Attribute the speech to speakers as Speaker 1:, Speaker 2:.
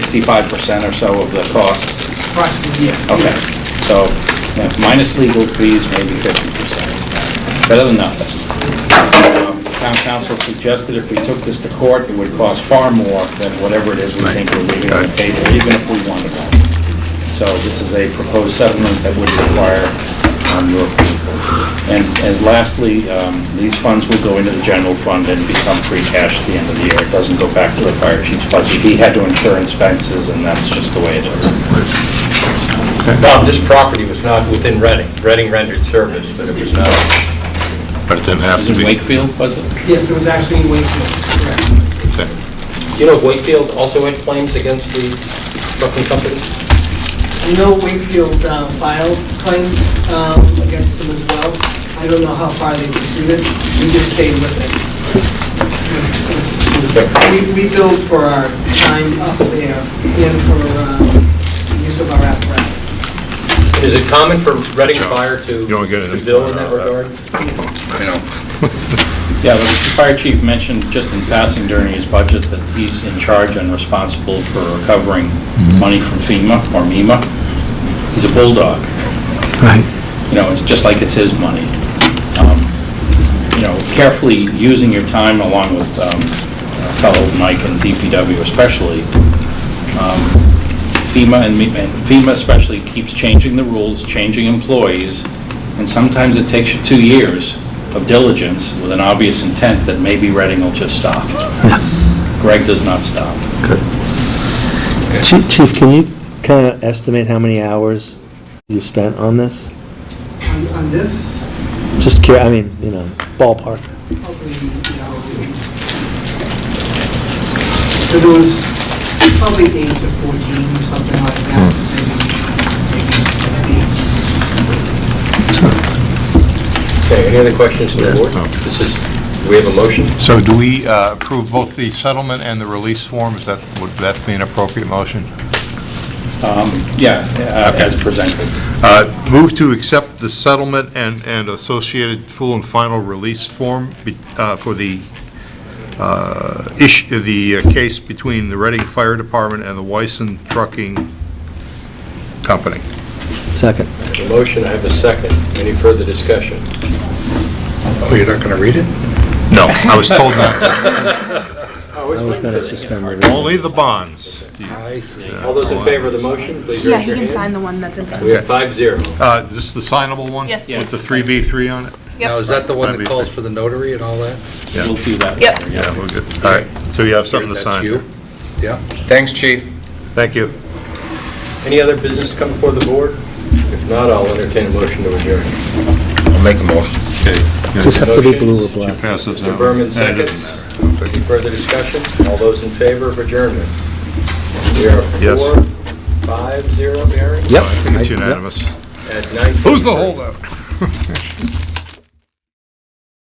Speaker 1: sixty-five percent or so of the cost?
Speaker 2: approximately, yeah.
Speaker 1: Okay, so you know, minus legal fees, maybe fifty percent. Better than nothing. Um, Town council suggested if we took this to court, it would cost far more than whatever it is we think we're leaving on the table, even if we wanted one. So this is a proposed settlement that would require um, your approval. And and lastly, um, these funds will go into the general fund and become free cash at the end of the year. It doesn't go back to the fire chief's budget. He had to incur expenses, and that's just the way it is.
Speaker 3: Bob, this property was not within Reading. Reading rendered service, but it was not.
Speaker 4: But it didn't have
Speaker 1: Was
Speaker 4: to
Speaker 1: it
Speaker 4: be.
Speaker 1: Wakefield, was it?
Speaker 2: Yes, it was actually in Wakefield, correct.
Speaker 3: You know Wakefield also had claims against the trucking company?
Speaker 2: I know Wakefield uh, filed claim um, against them as well. I don't know how far they pursued it, we just stayed with it. We- We build for our time up there and for um, use of our apparatus.
Speaker 3: Is it common for Reading Fire to
Speaker 4: You don't get it.
Speaker 3: to bill in that
Speaker 4: uh,
Speaker 3: regard?
Speaker 1: Yeah, the fire chief mentioned just in passing during his budget that he's in charge and responsible for recovering money from FEMA or MEMA. He's a bulldog. You know, it's just like it's his money. Um, You know, carefully using your time along with um, fellow Mike and DPW especially, um, FEMA and me- and FEMA especially keeps changing the rules, changing employees, and sometimes it takes you two years of diligence with an obvious intent that maybe Reading will just stop. Greg does not stop.
Speaker 5: Chief, Chief, can you kind of estimate how many hours you've spent on this?
Speaker 2: On- On this,
Speaker 5: Just curious, I mean, you know, ballpark.
Speaker 2: probably, you know, it was probably eight to 14 or something like that, maybe maybe 16.
Speaker 3: Okay, any other questions from the board? This is, do we have a motion?
Speaker 4: So do we uh, approve both the settlement and the release form? Is that, would that be an appropriate motion?
Speaker 1: Um, Yeah, uh, as presented.
Speaker 4: Uh, Move to accept the settlement and, and associated full and final release form be- uh, for the uh, issue, the uh, case between the Reading Fire Department and the Wyson Trucking Company.
Speaker 5: Second.
Speaker 3: I have A motion, I have a second. Any further discussion?
Speaker 4: Oh, you're not going to read it? No, I was told not.
Speaker 5: I was going to suspend the rules.
Speaker 4: Only the bonds.
Speaker 3: All those in favor of the motion, please
Speaker 6: Yeah,
Speaker 3: raise
Speaker 6: he
Speaker 3: your
Speaker 6: can sign
Speaker 3: hand.
Speaker 6: the one that's in front
Speaker 3: We
Speaker 6: of
Speaker 3: have five zero.
Speaker 4: Uh, Is this the signable one?
Speaker 6: Yes,
Speaker 4: With
Speaker 6: please.
Speaker 4: the 3B3 on it?
Speaker 7: Now, is that the one that
Speaker 4: That'd be-
Speaker 7: calls for the notary and all that?
Speaker 4: Yeah.
Speaker 1: We'll do that
Speaker 6: Yep.
Speaker 1: later.
Speaker 4: Yeah, we're good. All right, so you have something to
Speaker 7: That's
Speaker 4: sign.
Speaker 7: you? Yeah. Thanks, chief.
Speaker 4: Thank you.
Speaker 3: Any other business to come before the board? If not, I'll entertain a motion to adjourn.
Speaker 7: I'll make a motion.
Speaker 5: Does this have to be blue or black?
Speaker 4: Pass this
Speaker 3: Mr.
Speaker 4: down.
Speaker 3: Berman,
Speaker 4: Yeah, it
Speaker 3: seconds.
Speaker 4: doesn't matter.
Speaker 3: Any further discussion? All those in favor of adjournment? We are
Speaker 4: Yes.
Speaker 3: four, five, zero, Mary,
Speaker 5: Yep.
Speaker 4: I think it's
Speaker 5: I- yep.
Speaker 4: unanimous.
Speaker 3: at 19.
Speaker 4: Who's the holdout?